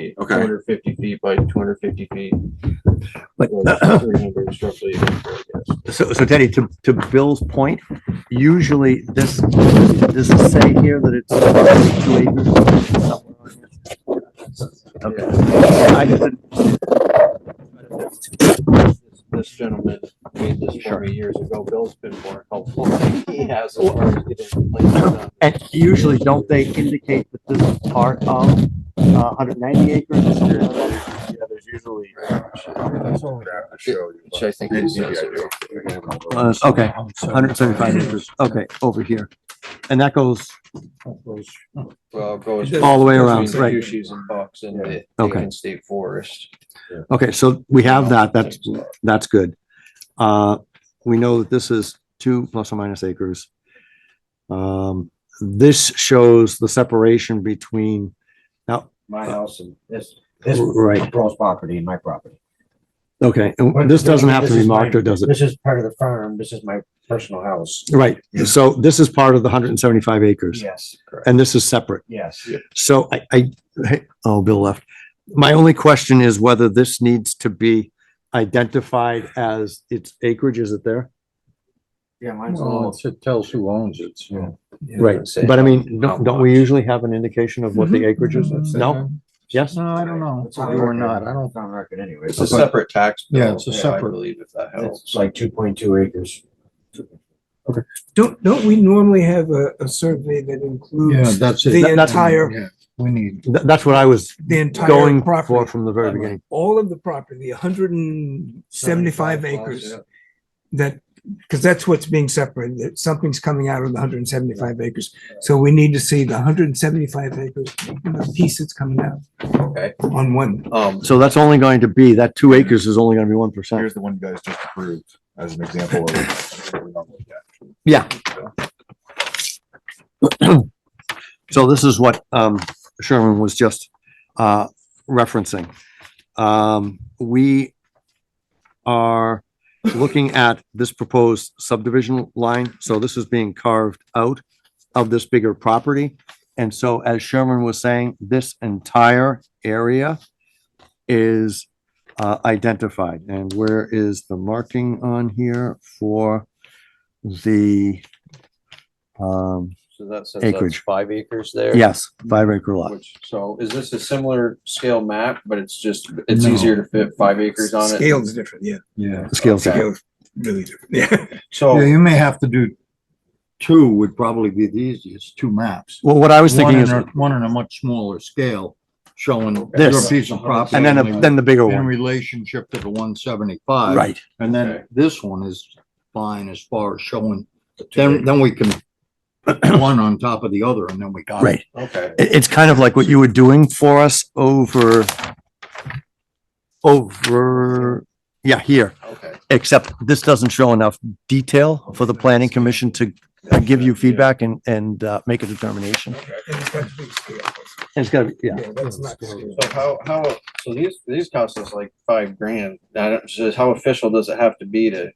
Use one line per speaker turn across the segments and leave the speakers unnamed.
feet.
Okay.
Two hundred fifty feet by two hundred fifty feet.
But,
Or 300 is roughly, I guess.
So, so Teddy, to, to Bill's point, usually this, does it say here that it's two acres? Okay. I just didn't-
This gentleman made this for me years ago. Bill's been more helpful. than He has as far as getting places done.
And usually, don't they indicate that this is part of uh hundred ninety acres or something like that?
Yeah, there's usually.
Which I think is necessary.
Uh, okay, hundred seventy-five acres, okay, over here. And that goes,
Well, it goes.
All the way around,
between
right.
Hughes and Bucks and the
Okay.
Haven State Forest.
okay, so we have that, that's, that's good. Uh, we know that this is two plus or minus acres. Um, this shows the separation between,
My house and this, this
right,
Paul's property and my property.
okay, and this doesn't have to be
is my-
marked, or does it?
This is part of the farm. This is my personal house.
Right, so this is part of the hundred and seventy-five acres,
Yes,
and this is separate.
yes.
So I, I, hey, oh, Bill left. My only question is whether this needs to be identified as its acreage, is it there?
Yeah, mine's
Well,
all.
it's- it tells who owns it, so.
Right, but I mean, don't, don't we usually have an indication of
Mm-hmm.
what the acreage is? No? Yes?
No, I don't know,
It's on
or
record.
not, I don't,
It's on record anyway.
It's a separate tax. bill,
Yeah, it's a
I
separate-
Believe if that helps.
It's like two point two acres.
Don't, don't we normally have a, a survey that
yeah,
includes
that's
The
it.
entire-
Yeah, We need,
Th- that's what I was
the entire
going for
property?
from the very beginning.
All of the property, hundred and seventy-five acres
Yeah.
that, because that's what's being separated, that something's coming out of the hundred and seventy-five acres. So we need to see the hundred and seventy-five acres, and the piece that's coming out
Okay.
on one.
Um,
So that's only going to be, that two acres is only gonna be one percent.
Here's the one you guys just approved as an example of. what we normally get.
Yeah. So this is what, um, Sherman was just, uh, referencing. Um, we are looking at this proposed subdivision line, so this is being carved out of this bigger property. And so as Sherman was saying, this entire area is, uh, identified. And where is the marking on here for the, um,
so that says that's
Acreage.
five acres there.
yes, five acre lot.
Which, so is this a similar scale map, but it's just, it's
No.
easier to fit five acres on it?
Scale's different, yeah.
yeah.
Scales down.
Scale's really different, yeah.
Yeah,
So,
you may have to do two would probably be the easiest, two maps.
Well, what I was thinking
One
is,
in a- One on a much smaller scale, showing your
This.
piece of property.
and then, a- then the bigger
In
one,
relationship to the one seventy-five.
right?
And
Okay.
then this one is fine as far as showing, then, then we can one on top of the other and then we got it.
Right.
okay,
It, it's kind of like what you were doing for us over, over, yeah, here,
okay.
except this doesn't show enough detail for the planning commission to uh, give you feedback and, and, uh, make a determination.
And it's got big scale.
It's gotta be, yeah.
Yeah, that's not scale.
So how, how, so these, these cost us like five grand. I don't, so how official does it have to be to?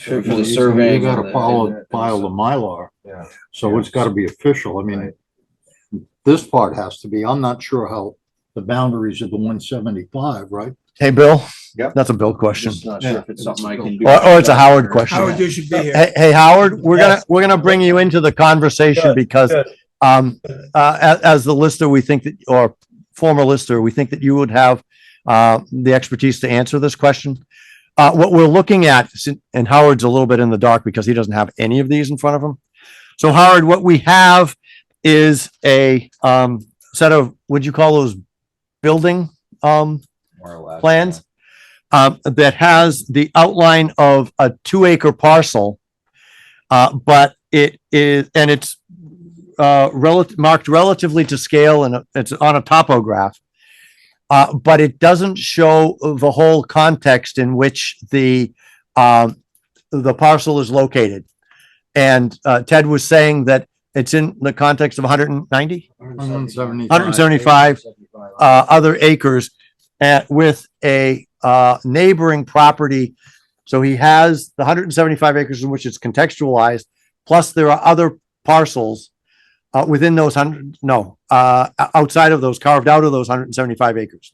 For
You
the surveying.
You
and
gotta
the-
follow, file the Mylar.
Yeah.
So it's gotta be official. I mean, this part has to be, I'm not sure how the boundaries of the one seventy-five, right?
Hey, Bill?
Yep. uh,
That's a Bill question.
Just not sure if it's something I can do.
Or, or it's a Howard
Howard,
question.
you should be here.
Hey, hey, Howard, we're gonna, we're gonna bring you into the conversation
Good,
because,
good.
um, uh, as, as the lister, we think that, or former lister, we think that you would have, uh, the expertise to answer this question. Uh, what we're looking at, sin- and Howard's a little bit in the dark because he doesn't have any of these in front of him. So Howard, what we have is a, um, set of, would you call those building, um,
More or less.
plans um, that has the outline of a two acre parcel. Uh, but it is, and it's uh, relative, marked relatively to scale and it's on a topograph. Uh, but it doesn't show the whole context in which the, um, the parcel is located. And uh, Ted was saying that it's in the context of 190?
One seventy-five.
175 uh, other acres at, with a, uh, neighboring property. So he has the hundred and seventy-five acres in which it's contextualized, plus there are other parcels Uh, within those hundred, no, uh, o- outside of those, carved out of those hundred and seventy-five acres.